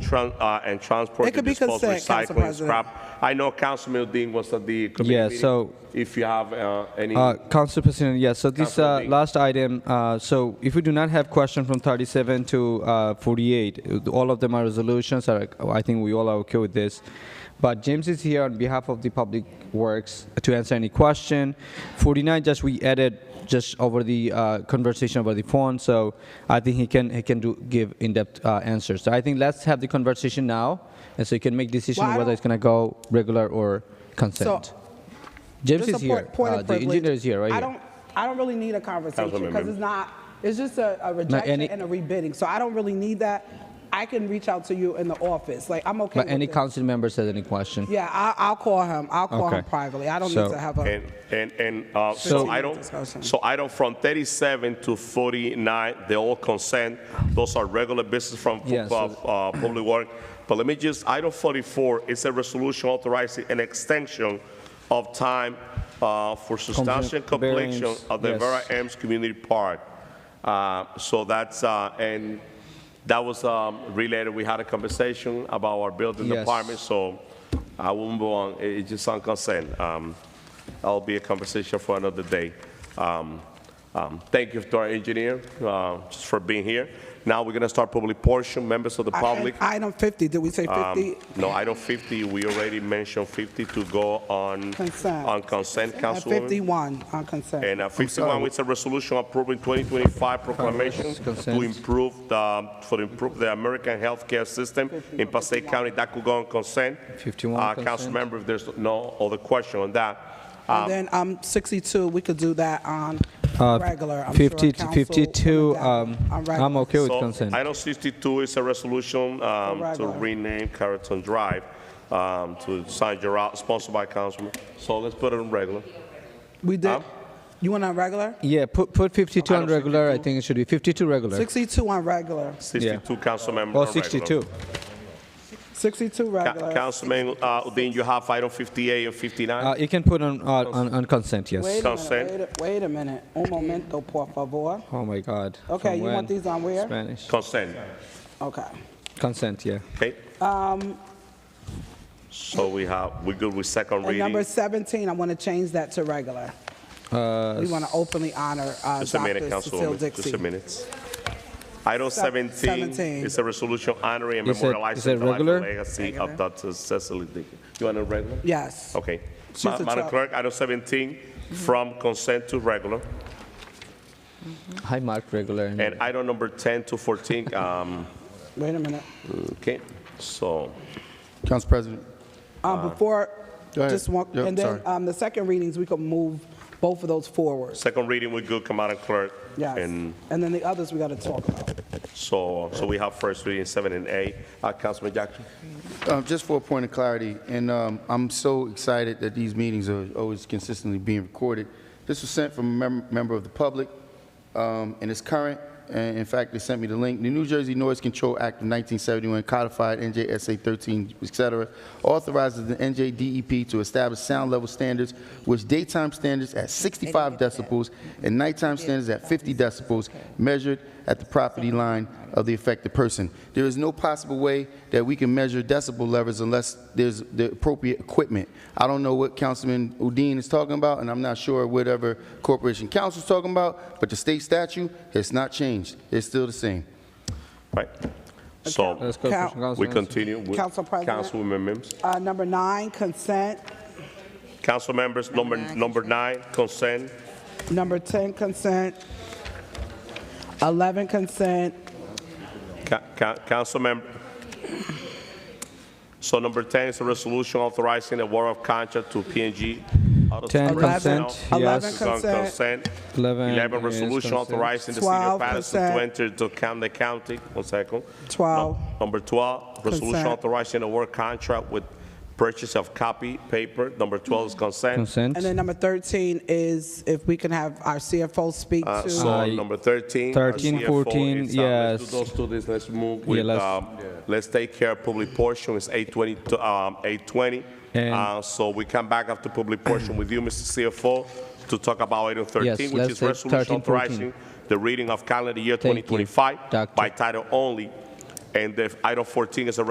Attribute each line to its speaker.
Speaker 1: tran- uh, and transport
Speaker 2: It
Speaker 1: to
Speaker 2: could be
Speaker 1: dispose
Speaker 2: consent, Council
Speaker 1: recycling
Speaker 2: President.
Speaker 1: scrap. I know Councilman Dean was at the committee
Speaker 3: Yeah,
Speaker 1: meeting.
Speaker 3: so-
Speaker 1: If you have uh, any,
Speaker 3: Uh, Council President, yes, so this
Speaker 1: Councilor
Speaker 3: uh,
Speaker 1: Dean.
Speaker 3: last item, uh, so if we do not have question from 37 to uh, 48, uh, all of them are resolutions, are, I think we all are okay with this. But James is here on behalf of the Public Works to answer any question. 49, just we added just over the uh, conversation over the phone, so I think he can, he can do, give in-depth uh, answers. So I think let's have the conversation now, and so you can make decision
Speaker 2: Well, I
Speaker 3: whether
Speaker 2: don't-
Speaker 3: it's gonna go regular or consent. James
Speaker 2: Just
Speaker 3: is
Speaker 2: a
Speaker 3: here.
Speaker 2: point- point
Speaker 3: Uh,
Speaker 2: of
Speaker 3: the
Speaker 2: privilege.
Speaker 3: engineer is here, right
Speaker 2: I
Speaker 3: here.
Speaker 2: don't, I don't really need a conversation
Speaker 1: Councilman
Speaker 2: because it's not, it's just a, a rejection
Speaker 3: any-
Speaker 2: and a rebidding. So I don't really need that. I can reach out to you in the office. Like, I'm okay
Speaker 3: But any
Speaker 2: with it.
Speaker 3: council member says any question?
Speaker 2: Yeah, I, I'll call him. I'll call him
Speaker 3: Okay.
Speaker 2: privately. I don't
Speaker 3: So-
Speaker 2: need to have a,
Speaker 1: and, and, and uh, so
Speaker 2: Fifteen
Speaker 1: I don't,
Speaker 2: discussion.
Speaker 1: so I don't, from 37 to 49, they all consent. Those are regular business from pu-
Speaker 3: Yeah, so-
Speaker 1: uh, Public Work. But let me just, item 44, it's a resolution authorizing an extension of time uh, for substantial completion
Speaker 3: variance,
Speaker 1: of the
Speaker 3: yes.
Speaker 1: Vera Ames Community Park. Uh, So that's, uh, and that was um, related, we had a conversation about our building
Speaker 3: Yes.
Speaker 1: department, so I won't go on, It- it's just on consent. Um, That'll be a conversation for another day. Um, um, Thank you to our engineer, uh, just for being here. Now we're gonna start public portion, members of the
Speaker 2: I-
Speaker 1: public. Um,
Speaker 2: item 50. Did we say 50?
Speaker 1: No, item 50, we already mentioned 50 to go on,
Speaker 2: Consent.
Speaker 1: on consent,
Speaker 2: And
Speaker 1: Councilwoman.
Speaker 2: 51 on consent.
Speaker 1: And uh, 51, it's a resolution approving 2025 proclamation to
Speaker 3: Consent.
Speaker 1: improve the, for improve the American healthcare system in Passaic County. That could go on consent.
Speaker 3: 51
Speaker 1: Uh,
Speaker 3: consent.
Speaker 1: Councilmember, if there's no other question on that.
Speaker 2: And then um, 62, we could do that on
Speaker 3: Uh,
Speaker 2: regular. I'm sure
Speaker 3: 50 to
Speaker 2: council
Speaker 3: 52,
Speaker 2: would adapt
Speaker 3: um,
Speaker 2: on
Speaker 3: I'm
Speaker 2: regular.
Speaker 3: okay with
Speaker 1: So,
Speaker 3: consent.
Speaker 1: Item 62 is a resolution um, to
Speaker 2: Regular.
Speaker 1: rename Carrollton Drive um, to San Gerard, sponsored by Councilman. So let's put it in regular.
Speaker 2: We did,
Speaker 1: Huh?
Speaker 2: you went on regular?
Speaker 3: Yeah, put, put 52 on
Speaker 1: Item
Speaker 3: regular, I think it should be 52 regular.
Speaker 2: 62 on regular,
Speaker 1: 62, Councilmember.
Speaker 3: Or
Speaker 1: on regular.
Speaker 3: 62.
Speaker 2: 62
Speaker 1: Ca-
Speaker 2: regular.
Speaker 1: Councilman uh, Udine, you have item 58 and 59?
Speaker 3: Uh, You can put on, uh, on on consent,
Speaker 2: Wait
Speaker 3: yes.
Speaker 2: a
Speaker 1: Consent.
Speaker 2: minute, wait a- wait a minute, un momento, por favor.
Speaker 3: Oh, my God.
Speaker 2: Okay,
Speaker 3: From
Speaker 2: you want
Speaker 3: when?
Speaker 2: these on where?
Speaker 3: Spanish.
Speaker 1: Consent,
Speaker 2: Okay.
Speaker 3: Consent, yeah.
Speaker 1: okay?
Speaker 2: Um,
Speaker 1: So we have, we're good with second
Speaker 2: And
Speaker 1: reading?
Speaker 2: number 17, I want to change that to regular.
Speaker 4: Uh,
Speaker 2: We want to openly honor uh,
Speaker 1: Just a minute,
Speaker 2: Dr. Cecile
Speaker 1: Councilwoman, just a
Speaker 2: Dixie.
Speaker 1: minute. Item
Speaker 2: Se-
Speaker 1: 17
Speaker 2: 17.
Speaker 1: is a resolution honoring and
Speaker 3: Is it-
Speaker 1: memorializing
Speaker 3: is it
Speaker 1: the life and
Speaker 3: regular?
Speaker 1: legacy of Dr. Cecily Dickens. You want a regular?
Speaker 2: Yes.
Speaker 1: Okay.
Speaker 2: She's
Speaker 1: Ma-
Speaker 2: a
Speaker 1: Madam
Speaker 2: twelve.
Speaker 1: Clerk, item 17, from consent to regular,
Speaker 3: High mark regular. and-
Speaker 1: and item number 10 to 14, um,
Speaker 2: Wait a minute.
Speaker 1: okay? So,
Speaker 4: Council President,
Speaker 1: Uh,
Speaker 2: Um, Before,
Speaker 4: Go ahead.
Speaker 2: just one,
Speaker 4: Yep,
Speaker 2: and then
Speaker 4: sorry.
Speaker 2: um, the second readings, we could move both of those forward.
Speaker 1: second reading, we're good, Madam Clerk.
Speaker 2: Yes.
Speaker 1: And
Speaker 2: And then the others we got to talk about.
Speaker 1: so, so we have first reading, seven and eight. Uh, Councilman Jackson?
Speaker 4: uh, just for a point of clarity, and um, I'm so excited that these meetings are always consistently being recorded. This was sent from a mem- member of the public, um, and it's current, and in fact, they sent me the link. The New Jersey Noise Control Act of 1971 codified NJSA 13, et cetera, authorizes the NJDEP E to establish sound level standards, which daytime standards at 65 decibels and nighttime standards at 50 decibels measured at the property line of the affected person. There is no possible way that we can measure decibel levels unless there's the appropriate equipment. I don't know what Councilman Udine is talking about, and I'm not sure whatever Corporation Council is talking about, but the state statute has not changed. It's still the same.
Speaker 1: Right. So
Speaker 3: Let's go,
Speaker 2: Count.
Speaker 3: Council-
Speaker 1: we continue with
Speaker 2: Council President.
Speaker 1: Councilwoman Mims.
Speaker 2: Uh, Number nine, consent.
Speaker 1: Council members, number, number nine, consent.
Speaker 2: Number 10, consent. 11, consent.
Speaker 1: Ca- ca- Council member. So number 10 is a resolution authorizing the award of contract to P&G. Auto
Speaker 3: 10
Speaker 1: Service Personnel.
Speaker 2: consent, Eleven
Speaker 3: yes.
Speaker 1: This is on
Speaker 2: consent.
Speaker 1: consent.
Speaker 3: 11
Speaker 1: 11,
Speaker 3: is
Speaker 1: resolution
Speaker 3: consent.
Speaker 1: authorizing the city of
Speaker 2: Twelve
Speaker 1: Patterson
Speaker 2: consent.
Speaker 1: to enter into Camden County. One second.
Speaker 2: Twelve.
Speaker 1: No- Number 12, resolution
Speaker 2: Consent.
Speaker 1: authorizing the award contract with purchase of copy, paper. Number 12 is consent.
Speaker 3: Consent.
Speaker 2: And then number 13 is if we can have our CFO speak
Speaker 1: Uh,
Speaker 2: to.
Speaker 1: So
Speaker 3: Uh,
Speaker 1: number 13. our
Speaker 3: 13,
Speaker 1: CFO,
Speaker 3: 14,
Speaker 1: it's, uh, Let's
Speaker 3: yes.
Speaker 1: do those two, things. let's move with,
Speaker 3: let's-
Speaker 1: um, let's take care of public portion, it's 8:20, to, um, 8:20.
Speaker 3: And-
Speaker 1: Uh, So we come back after public portion with you, Mr. CFO, to talk about item
Speaker 3: Yes,
Speaker 1: 13, which
Speaker 3: let's
Speaker 1: is
Speaker 3: take
Speaker 1: resolution
Speaker 3: 13, 14.
Speaker 1: authorizing the reading of calendar year
Speaker 3: Thank you,
Speaker 1: 2025
Speaker 3: Doctor.
Speaker 1: by title only. And if item 14 is a